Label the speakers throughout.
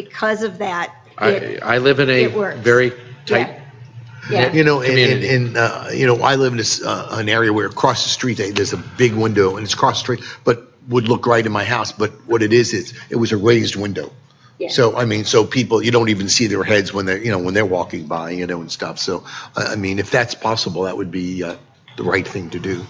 Speaker 1: Because of that,
Speaker 2: I,
Speaker 1: it,
Speaker 2: I live in a
Speaker 1: It works.
Speaker 2: very
Speaker 1: yeah.
Speaker 2: tight,
Speaker 1: Yeah,
Speaker 3: You know, and, and,
Speaker 2: Community.
Speaker 3: and, uh, you know, I live in this, uh, an area where across the street, they- there's a big window and it's across the street, but would look right in my house, but what it is, is it was a raised window.
Speaker 1: Yeah.
Speaker 3: So, I mean, so people, you don't even see their heads when they're, you know, when they're walking by, you know, and stuff. So, I, I mean, if that's possible, that would be, uh, the right thing to do.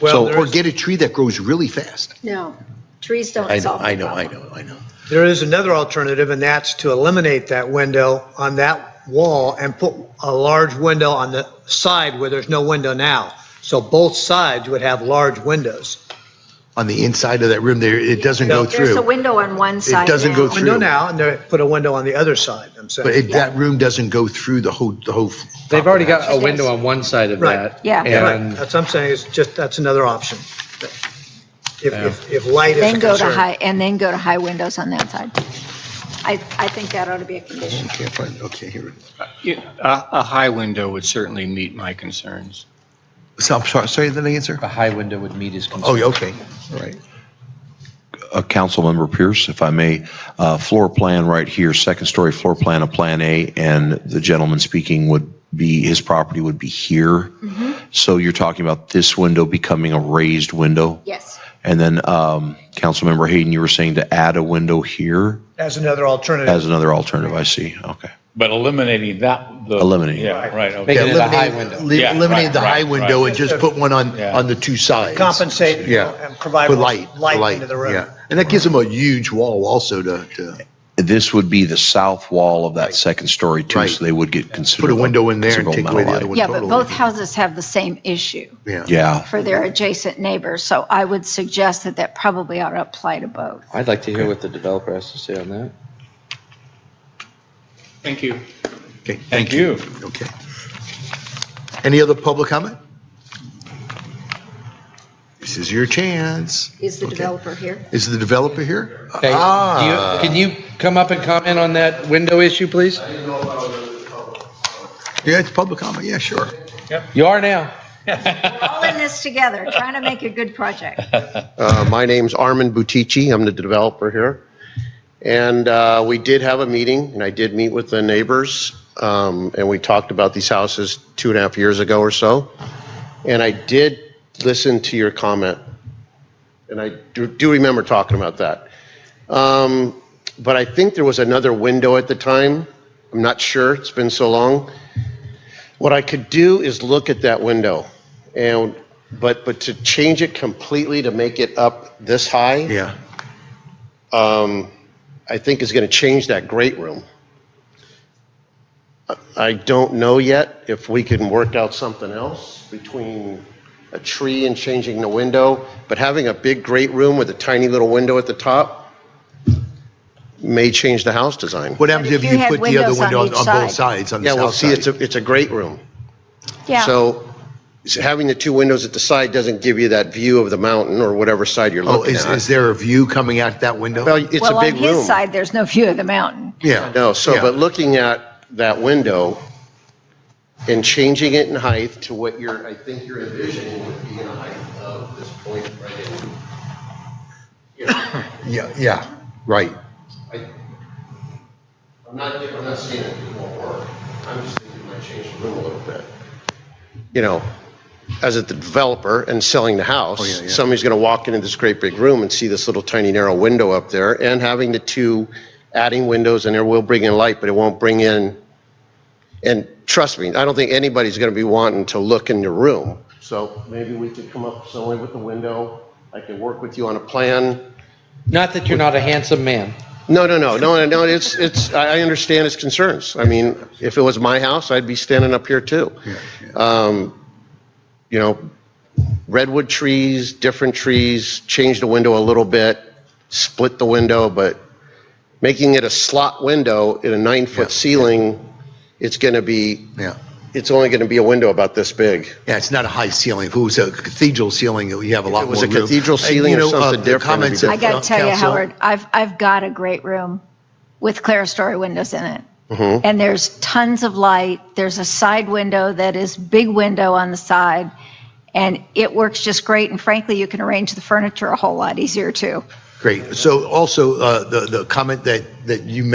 Speaker 4: Well,
Speaker 3: So,
Speaker 4: there
Speaker 3: or
Speaker 4: is-
Speaker 3: get a tree that grows really fast.
Speaker 1: no, trees don't
Speaker 3: I know,
Speaker 1: solve
Speaker 3: I
Speaker 1: the
Speaker 3: know, I
Speaker 1: problem.
Speaker 3: know, I know.
Speaker 4: there is another alternative, and that's to eliminate that window on that wall and put a large window on the side where there's no window now. So both sides would have large windows.
Speaker 3: On the inside of that room there, it doesn't go
Speaker 1: There's a
Speaker 3: through.
Speaker 1: window on one side
Speaker 3: doesn't go
Speaker 1: now.
Speaker 3: through.
Speaker 4: Window now, and they put a window on the other side, I'm
Speaker 3: But
Speaker 4: saying.
Speaker 3: it, that room doesn't go through the whole, the whole.
Speaker 2: they've already got a
Speaker 1: Yes.
Speaker 2: window on one side of
Speaker 4: Right.
Speaker 2: that.
Speaker 1: Yeah.
Speaker 4: Yeah, right.
Speaker 2: And
Speaker 4: That's what I'm saying, is just, that's another option. If, if, if light is a
Speaker 1: Then go to
Speaker 4: concern.
Speaker 1: high, and then go to high windows on that side. I, I think that ought to be a condition.
Speaker 3: Can't find, okay, here it is.
Speaker 5: Yeah, A, a high window would certainly meet my concerns.
Speaker 3: So, I'm sorry, say that again, sir?
Speaker 6: a high window would meet his concern.
Speaker 3: Oh, yeah, okay, all right.
Speaker 7: uh, Councilmember Pierce, if I may, uh, floor plan right here, second story floor plan of Plan A, and the gentleman speaking would be, his property would be here. So you're talking about this window becoming a raised window?
Speaker 1: Yes,
Speaker 7: And then um, Councilmember Hayden, you were saying to add a window here
Speaker 4: As another alternative.
Speaker 7: as another alternative, I see, okay.
Speaker 8: But eliminating that. the-
Speaker 7: Eliminating.
Speaker 8: Yeah, right, okay.
Speaker 2: Making it a high
Speaker 3: Eliminate,
Speaker 2: window.
Speaker 3: leave-
Speaker 8: Yeah,
Speaker 3: eliminate
Speaker 8: right,
Speaker 3: the high
Speaker 8: right,
Speaker 3: window
Speaker 8: right.
Speaker 3: and just put one on,
Speaker 8: Yeah.
Speaker 3: on the two sides.
Speaker 4: Compensate
Speaker 3: Yeah.
Speaker 4: and provide
Speaker 3: For
Speaker 4: more
Speaker 3: light, for
Speaker 4: light into the room.
Speaker 3: yeah. And that gives them a huge wall also to, to
Speaker 7: This would be the south wall of that second story too,
Speaker 3: Right.
Speaker 7: so they would get considered.
Speaker 3: put a window in there and
Speaker 7: considerable
Speaker 3: take away
Speaker 7: amount of
Speaker 3: the other
Speaker 7: light.
Speaker 3: one
Speaker 1: yeah, but
Speaker 3: totally.
Speaker 1: both houses have the same issue
Speaker 3: Yeah.
Speaker 7: Yeah,
Speaker 1: for their adjacent neighbors, so I would suggest that that probably ought to apply to both.
Speaker 6: I'd like to hear what the developer has to say on that.
Speaker 5: Thank you.
Speaker 3: Okay,
Speaker 8: Thank you.
Speaker 3: okay. Any other public comment? This is your chance.
Speaker 1: Is the
Speaker 3: Okay.
Speaker 1: developer here?
Speaker 3: Is the developer here?
Speaker 2: Okay, do you-
Speaker 3: Ah.
Speaker 2: Can you come up and comment on that window issue, please?
Speaker 3: Yeah, it's public comment, yeah, sure.
Speaker 2: You are now.
Speaker 1: All in this together, trying to make a good project.
Speaker 9: Uh, My name's Armin Butici. I'm the developer here. And uh, we did have a meeting, and I did meet with the neighbors, um, and we talked about these houses two and a half years ago or so. And I did listen to your comment, and I do do remember talking about that. Um, But I think there was another window at the time. I'm not sure. It's been so long. What I could do is look at that window and, but, but to change it completely to make it up this high,
Speaker 3: Yeah,
Speaker 9: um, I think is going to change that great room. I- I don't know yet if we can work out something else between a tree and changing the window, but having a big great room with a tiny little window at the top may change the house design.
Speaker 3: what happens
Speaker 1: But
Speaker 3: if
Speaker 1: if you
Speaker 3: you
Speaker 1: had
Speaker 3: put the other
Speaker 1: windows on
Speaker 3: window on
Speaker 1: each
Speaker 3: on
Speaker 1: side.
Speaker 3: both sides, on the
Speaker 9: Yeah, well,
Speaker 3: south
Speaker 9: see, it's
Speaker 3: side?
Speaker 9: a, it's a great room.
Speaker 1: Yeah,
Speaker 9: So so having the two windows at the side doesn't give you that view of the mountain or whatever side you're
Speaker 3: Oh,
Speaker 9: looking
Speaker 3: is, is
Speaker 9: at.
Speaker 3: there a view coming out that window?
Speaker 9: Well, it's
Speaker 1: well,
Speaker 9: a
Speaker 1: on
Speaker 9: big
Speaker 1: his
Speaker 9: room.
Speaker 1: side, there's no view of the mountain.
Speaker 3: Yeah.
Speaker 9: No, so,
Speaker 3: Yeah.
Speaker 9: but looking at that window and changing it in height to what you're, I think you're envisioning would be in a height of this point right in. You know,
Speaker 3: Yeah, yeah, right.
Speaker 9: I- I'm not, I'm not saying it won't work. I'm just thinking it might change the room a little bit. You know, as a developer and selling the
Speaker 3: yeah, yeah.
Speaker 9: house, somebody's going to walk into this great big room and see this little tiny narrow window up there and having the two, adding windows in there will bring in light, but it won't bring in, and trust me, I don't think anybody's going to be wanting to look in your room. So maybe we could come up somewhere with the window. I could work with you on a plan.
Speaker 2: Not that you're not a handsome man.
Speaker 9: No, no, no, no, no, it's, it's, I I understand his concerns. I mean, if it was my house, I'd be standing up here too. Um, You know, redwood trees, different trees, change the window a little bit, split the window, but making it a slot window in a nine-foot ceiling, it's going to be,
Speaker 3: Yeah.
Speaker 9: it's only going to be a window about this big.
Speaker 3: Yeah, it's not a high ceiling. If it was a cathedral ceiling, you have a lot
Speaker 9: it
Speaker 3: more room.
Speaker 9: was a cathedral
Speaker 3: And,
Speaker 9: ceiling
Speaker 3: you
Speaker 9: or
Speaker 3: know, uh,
Speaker 9: something
Speaker 3: the
Speaker 9: different, it'd be
Speaker 3: comments that
Speaker 1: I gotta
Speaker 3: Fran-
Speaker 1: tell you,
Speaker 3: council-
Speaker 1: Howard, I've, I've got a great room with clerestory windows in it. And there's tons of light. There's a side window that is big window on the side. And it works just great. And frankly, you can arrange the furniture a whole lot easier too.
Speaker 3: Great. So also, uh, the, the comment that, that you